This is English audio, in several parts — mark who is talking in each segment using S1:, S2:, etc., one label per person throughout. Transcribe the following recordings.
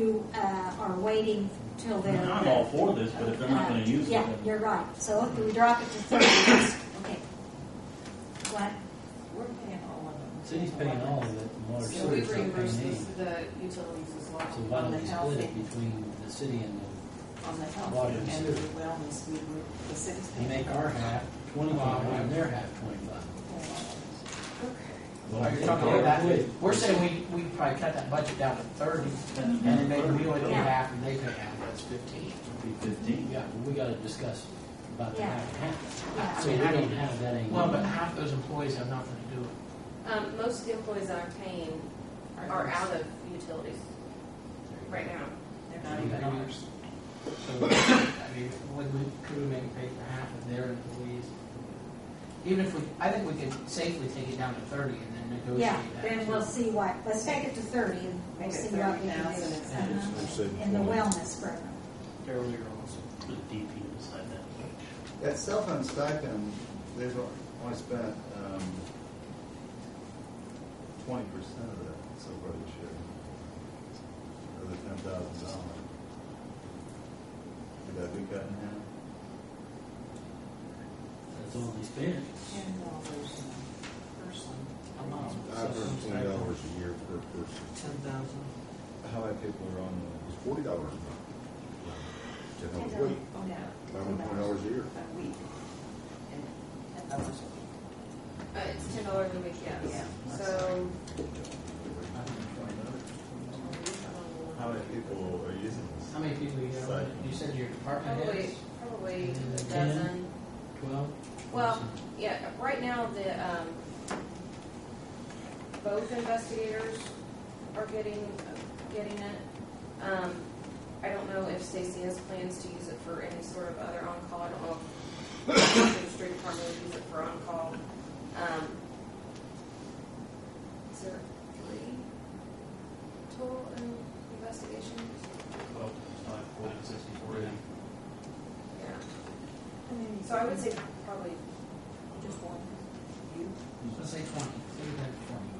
S1: who uh, are waiting till they're. uh,
S2: I'm all for this, but if they're not gonna use it,
S1: Yeah,
S2: then-
S1: you're right. So if we drop it to thirty, just- okay. What?
S3: We're paying all of them.
S4: City's paying all of it, and water
S3: So we
S4: sewer's not paying
S3: reimburse
S4: any.
S3: the, the utilities as well.
S4: So why
S3: on
S4: don't
S3: the
S4: we
S3: health
S4: split it
S3: and-
S4: between the city and
S3: On the
S4: water
S3: health and
S4: and
S3: the
S4: sewer?
S3: wellness, we, were- the city's
S4: the,
S3: paying.
S4: and make our half twenty-five and their half twenty-five?
S2: Well,
S5: Are you talking about that? We're saying we, we probably cut that budget down to thirty, and then maybe we only pay
S1: Yeah.
S5: half, and they pay half, that's fifteen.
S2: it'd be fifteen.
S4: Yeah, but we gotta discuss about the
S1: Yeah.
S4: half and half.
S1: Yeah.
S4: So we
S5: how do you-
S4: don't have that angle.
S5: Well, but half those employees have nothing to do with
S6: Um, most of the employees that I'm paying
S5: it.
S6: are out of utilities right now.
S3: They're not even ours.
S5: So, I mean, would we, could we make pay for half of their employees? Even if we, I think we could safely take it down to thirty and then negotiate
S1: Yeah,
S5: that.
S1: then we'll see what, let's take it to thirty and we'll
S3: Make it
S1: see what we can do.
S3: 30,000
S1: Uh-huh.
S3: instead
S5: of-
S7: They're saving
S1: In the
S7: 20.
S1: wellness program.
S5: Earlier also.
S2: Put a DP beside that.
S8: That cell phone stipend, they've only spent um, twenty percent of that so far this year. Of the ten thousand dollars. Could that be cut in half?
S4: That's all they spend.
S3: Ten dollars a person.
S7: I've earned twenty dollars a year per person.
S5: Ten thousand.
S8: How many people are on
S7: It's forty dollars a month. Ten hours a week,
S3: Oh, yeah.
S7: I earn twenty dollars a year.
S3: A week. And ten dollars a week.
S6: Uh, it's ten dollars a week, yes.
S3: Yeah.
S6: So,
S8: the,
S6: um,
S8: how many people are using
S5: How many people you got?
S8: Side.
S5: You said your department
S1: Oh,
S6: probably,
S5: heads?
S6: probably a
S4: Ten?
S6: dozen.
S4: Twelve?
S6: Well, yeah, right now, the, um, both investigators are getting, getting it. Um, I don't know if Stacy has plans to use it for any sort of other on-call, I don't know if the street department would use it for on-call. Um, is there three total in investigations?
S2: Twelve times five, forty, sixty-four, eighty.
S6: Yeah, so I would say probably
S3: Just one. You?
S5: Let's say twenty, say we have twenty.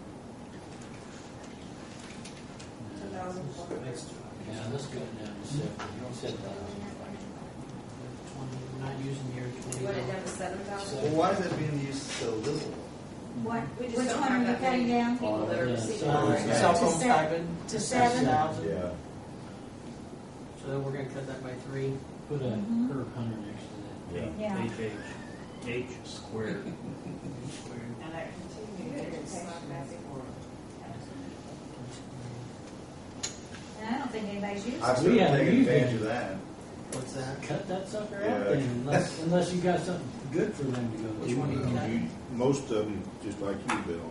S6: ten thousand four hundred.
S5: Next one.
S4: Yeah, let's go down to seven, seven thousand.
S5: Twenty, we're not using your
S6: Do
S5: twenty.
S6: you want it down to seven
S8: Well,
S6: thousand?
S4: Seven.
S8: why is that being used so little?
S1: What,
S6: We
S1: which
S6: just don't
S1: one
S6: have
S1: are you
S6: that many.
S1: cutting down?
S6: People that are
S4: Yeah,
S6: receiving.
S4: so-
S6: right now.
S5: Cell phone
S1: To se-
S5: stipend.
S1: to seven?
S5: $7,000.
S8: Yeah.
S5: So then we're gonna cut that by three.
S4: Put a
S1: Mhm.
S4: curb hunter next to
S8: Yeah.
S1: Yeah.
S2: H, H, H squared.
S3: And I continue to get patients
S1: And I don't think anybody's using
S8: I've
S1: it.
S8: certainly
S4: haven't
S8: taken
S4: used it.
S8: advantage of that.
S5: What's that?
S4: that. Cut that sucker out
S8: Yeah.
S4: then, unless, unless you got something good for them to go to.
S5: Which one do you got?
S7: You- Most of them, just like you, Bill,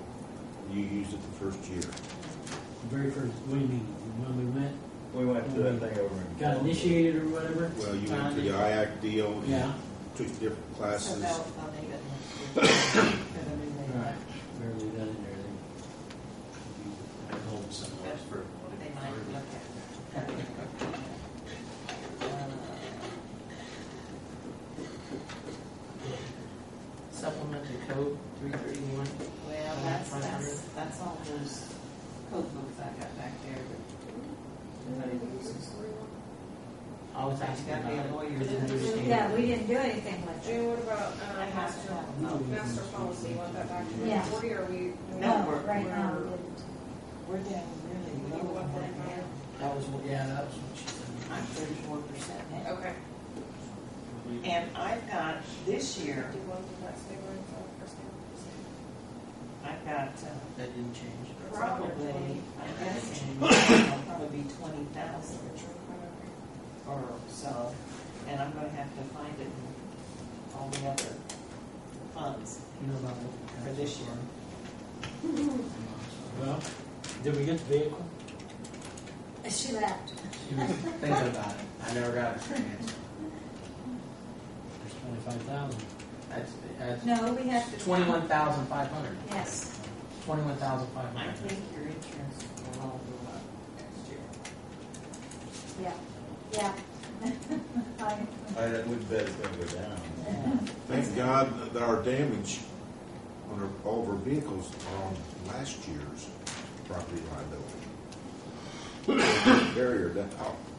S7: you used it the first year.
S4: The Very first, what do you mean, when we went,
S8: We went to that thing over in.
S4: got initiated or whatever?
S7: Well, you went to the IAC deal, and
S4: Yeah,
S7: took different
S3: So
S7: classes.
S3: they'll, they'll need it. For the new
S4: all
S3: thing.
S4: right, barely got in there then. I hope so.
S2: That's for-
S3: They might look at. Uh, it.
S5: Supplement to code three thirty-one.
S3: Well, that's, that's, that's all those code books I got back there.
S5: I was asking
S3: Gotta be a
S5: about
S3: lawyer.
S5: it. Didn't understand.
S1: Yeah, we didn't do anything with it.
S6: June, what about,
S3: I
S6: um,
S3: have to
S6: master,
S3: have them.
S6: master policy, want that back to
S1: Yeah.
S6: the board, or we?
S3: No,
S1: No,
S3: we're-
S1: right now, we
S6: we're-
S1: didn't.
S3: We're down really low on that now.
S5: That was, what- yeah, that was what she
S3: I'm
S5: said.
S3: thirty-four percent now.
S6: Okay.
S3: And I've got, this year,
S6: Do you want the next neighbor and the first neighbor?
S3: I've got uh,
S5: That didn't change.
S3: Probably, I guess, in I'll probably be twenty thousand or so, and I'm gonna have to find it in all the other funds
S5: You know about
S3: for
S5: what?
S3: this year.
S4: Well, did we get the vehicle?
S1: She left.
S5: She was thinking about it. I never got a straight answer.
S4: There's twenty-five thousand.
S5: That's, that's.
S1: No, we have to.
S5: Twenty-one thousand five hundred.
S1: Yes.
S5: Twenty-one thousand five
S3: I
S5: hundred.
S3: think your insurance will all go up next year.
S1: Yeah, yeah. I-
S8: I would bet it's gonna go down.
S7: Thank God that our damage on our, all of our vehicles are on last year's property liability.
S8: take the barrier down.